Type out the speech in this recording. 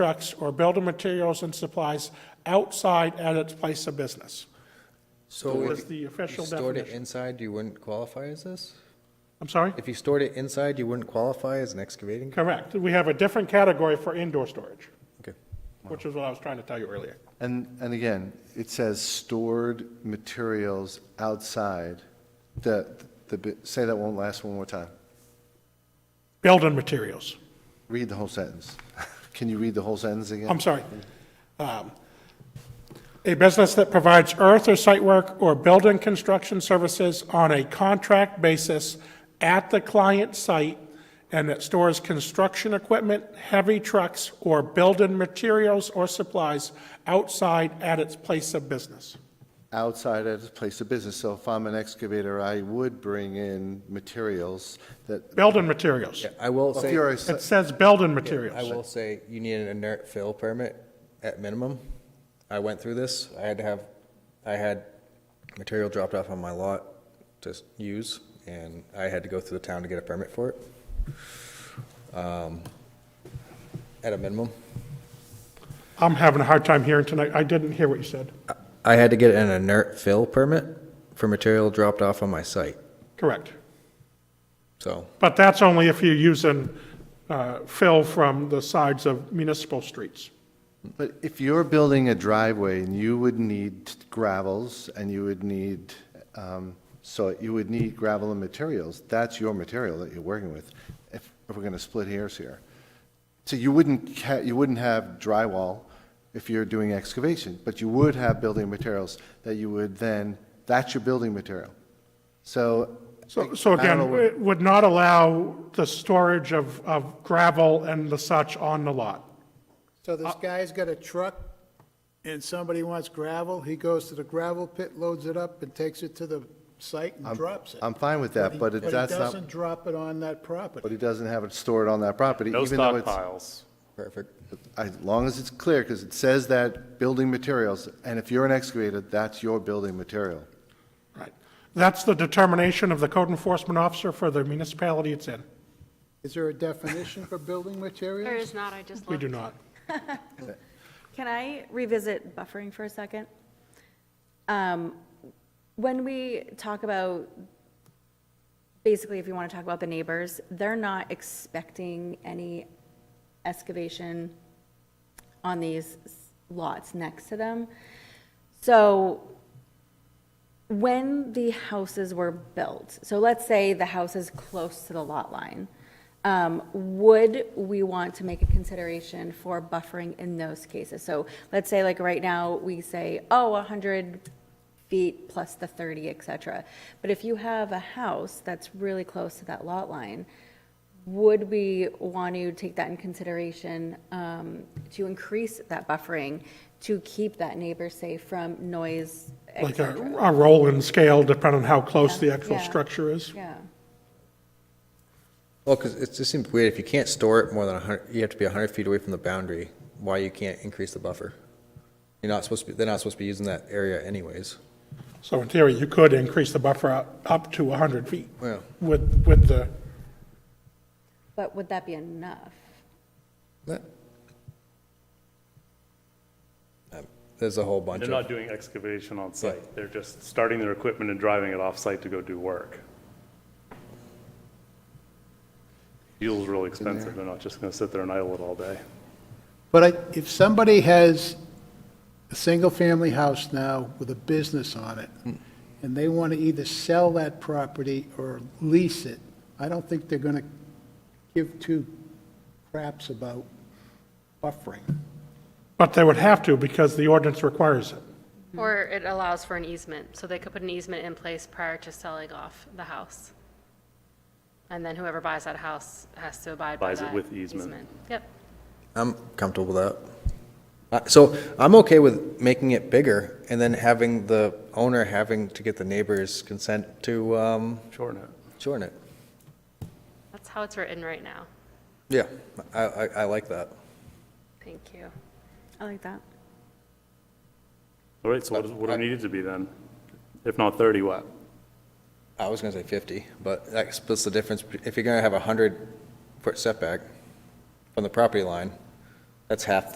trucks or building materials and supplies outside at its place of business. So That if is the official you stored it definition. inside, you wouldn't qualify as this? I'm sorry? If you stored it inside, you wouldn't qualify as an excavating? Correct. We have a different category for indoor storage, Okay. which is what I was trying to tell you earlier. And, and again, it says stored materials outside, the, the, bi- say that one last one more time. Building materials. Read the whole sentence. Can you read the whole sentence again? I'm sorry. Um, A business that provides earth or site work or building construction services on a contract basis at the client site and that stores construction equipment, heavy trucks, or building materials or supplies outside at its place of business. Outside at its place of business, so if I'm an excavator, I would bring in materials that, Building materials. Yeah, I will if say, you're a, It s- says building I materials. will say, you need an inert fill permit at minimum. I went through this, I had to have, I had material dropped off on my lot to s- use, and I had to go through the town to get a permit for it. Um, At a minimum. I'm having a hard time hearing tonight. I didn't hear what you said. I had to get an inert fill permit for material dropped off on my site, Correct. so. But that's only if you're using uh, fill from the sides of municipal streets. but if you're building a driveway and you would need gravels and you would need, um, so you would need gravel and materials, that's your material that you're working with, if, if we're gonna split hairs here. So you wouldn't, ca- you wouldn't have drywall if you're doing excavation, but you would have building materials that you would then, that's your building material. So. So, so I don't again, know what- it would not allow the storage of, of gravel and the such on the lot. So this guy's got a truck, and somebody wants gravel, he goes to the gravel pit, loads it up, and takes it to the site and drops it. I'm fine with that, but it- he that's not, doesn't drop it on that property. but he doesn't have it stored on that property. No even though it's- stockpiles. Perfect. As long as it's clear, because it says that building materials, and if you're an excavator, that's your building material. Right. That's the determination of the code enforcement officer for the municipality it's in. Is there a definition for building There materials? is not, I just We looked. do not. Can I revisit buffering for a second? Um, When we talk about, basically, if you want to talk about the neighbors, they're not expecting any excavation on these lots next to them. So when the houses were built, so let's say the house is close to the lot line, um, would we want to make a consideration for buffering in those cases? So let's say like right now, we say, oh, 100 feet plus the 30, et cetera. But if you have a house that's really close to that lot line, would we want to take that in consideration um, to increase that buffering to keep that neighbor safe from noise, et Like a, cetera? a roll and scale depending on how close the Yeah, actual yeah. structure is. Yeah, Well, because it just seems weird, if you can't store it more than 100, you have to be 100 feet away from the boundary, why you can't increase the buffer? You're not supposed to, be. they're not supposed to be using that area anyways. So in theory, you could increase the buffer up, up to 100 feet Yeah. with, with the, but would that be enough? That- Um, There's a whole bunch They're of, not doing excavation on site. They're just starting their equipment and driving it off-site to go do work. Fuel's really expensive. They're not just going to sit there and idle it all day. But I- if somebody has a single-family house now with a business on it, Hmm. and they want to either sell that property or lease it, I don't think they're going to give two craps about buffering. but they would have to because the ordinance requires it. Or it allows for an easement, so they could put an easement in place prior to selling off the house. And then whoever buys that house has to abide by Buys it that with easement. Yep. I'm comfortable with that. Uh, So I'm okay with making it bigger and then having the owner having to get the neighbor's consent to um, Shorten it. shorten it. That's how it's written right now. Yeah, I, I, I like that. Thank you. I like that. All right, so what does- what do we need it to be then? If not 30, what? I was gonna say 50, but that splits the difference. If you're gonna have a 100-foot setback from the property line, that's half